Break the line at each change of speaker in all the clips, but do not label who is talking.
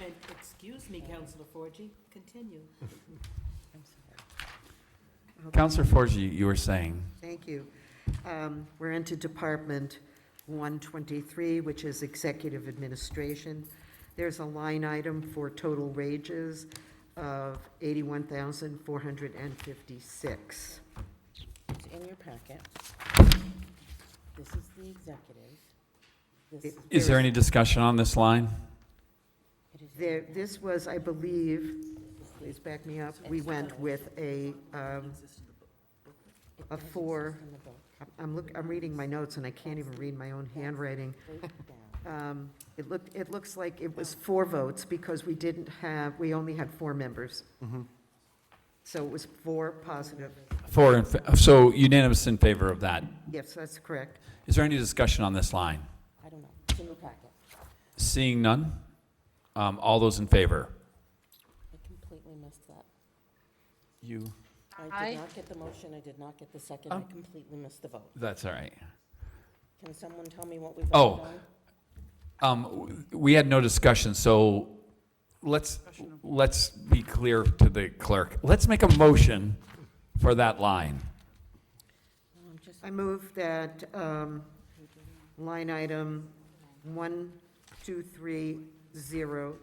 I, excuse me, Counselor Forgy, continue.
I'm sorry.
Counselor Forgy, you were saying,
Thank you. Um, We're into Department 123, which is Executive Administration. There's a line item for total wages of 81,456.
It's in your packet. This is the executive. This is.
is there any discussion on this line?
it is in
There,
your-
this was, I believe, please back me up, we went with a,
it
um, a
does exist
four.
in the book.
I'm look, I'm reading my notes and I can't even read my own handwriting.
Break it down.
Um, It looked, it looks like it was four votes because we didn't have, we only had four members. So it was four positive.
Four, in fa- so unanimous in favor of that.
Yes, that's correct.
Is there any discussion on this line?
I don't know. It's in your packet.
Seeing none, um, all those in favor?
I completely missed that.
You.
I
I-
did not get the motion. I did not get the second. I completely missed the vote.
That's all right.
Can someone tell me what we voted
Oh.
on?
Um, w- we had no discussion, so let's, let's be clear to the clerk. Let's make a motion for that line.
Oh, I'm just,
I move that um, line item one, two, three, zero,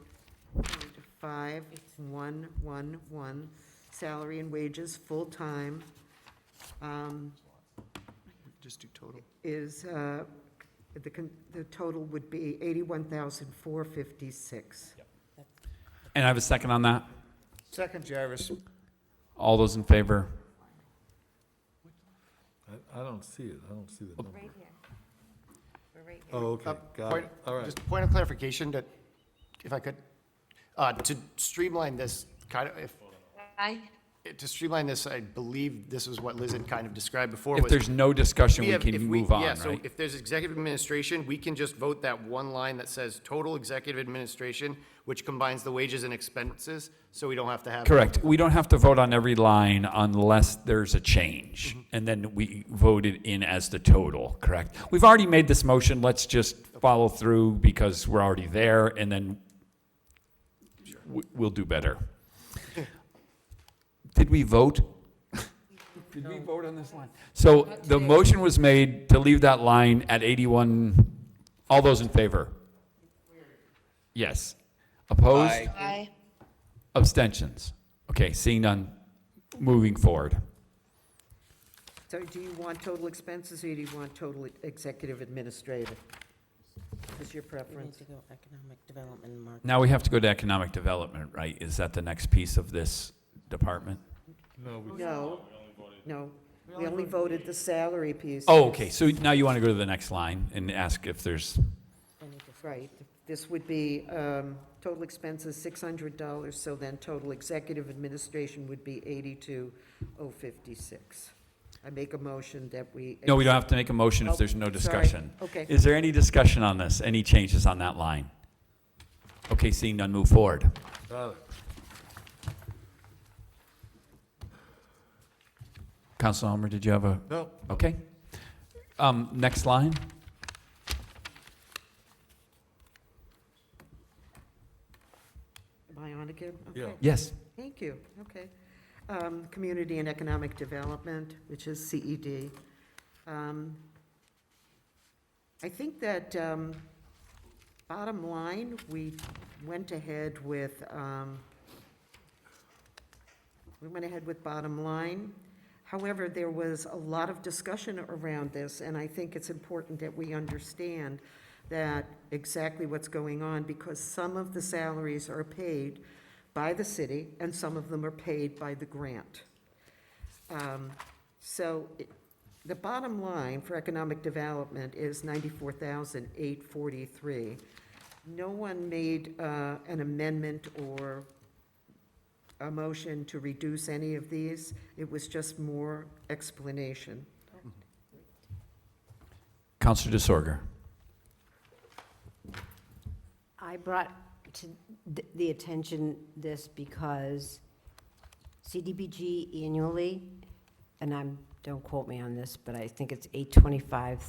point five, one, one, one, salary and wages, full-time, um,
Just do total.
is, uh, the, con- the total would be 81,456.
And I have a second on that?
Second, Jarvis.
All those in favor?
I, I don't see it, I don't see the number.
Right here. We're right here.
Oh, okay, got it, all right.
Just a Uh, point of clarification that, if I could, uh, to streamline this, kind of, if,
I,
to streamline this, I believe this is what Liz had kind of described before.
If
was
there's no discussion,
we
we
have- if
can
we-
move on,
Yeah, so
right?
if there's executive administration, we can just vote that one line that says total executive administration, which combines the wages and expenses, so we don't have to have.
Correct. We don't have to vote on every line unless there's a change. And then we vote it in as the total, correct? We've already made this motion, let's just follow through because we're already there and then we- we'll do better. Did we vote? Did we vote on this line? So the motion was made to leave that line at 81. All those in favor? Yes. Opposed?
I,
Abstentions. Okay, seeing none, moving forward.
So do you want total expenses or do you want total executive administrative? Is your
we need
preference?
to go economic development, and market.
Now we have to go to economic development, right? Is that the next piece of this department?
No, we-
No, no, we only voted the salary piece.
Oh, okay, so now you want to go to the next line and ask if there's,
Right, this would be, um, total expenses six hundred dollars, so then total executive administration would be eighty-two oh fifty-six. I make a motion that we.
no, we don't have to make a motion if
Oh,
there's no
sorry.
discussion.
Okay.
Is there any discussion on this? Any changes on that line? Okay, seeing none, move forward.
got it.
Council Homer, did you have a,
No,
okay? Um, next line?
Am I on again? Okay.
yeah,
Yes.
Thank you, okay. Um, Community and Economic Development, which is CED. Um, I think that, um, bottom line, we went ahead with, um, we went ahead with bottom line. However, there was a lot of discussion around this, and I think it's important that we understand that exactly what's going on, because some of the salaries are paid by the city, and some of them are paid by the grant. Um, So it- the bottom line for economic development is 94,843. No one made uh, an amendment or a motion to reduce any of these. It was just more explanation.
Counselor DeSorger?
I brought to th- the attention this because CDBG annually, and I'm, don't quote me on this, but I think it's eight twenty-five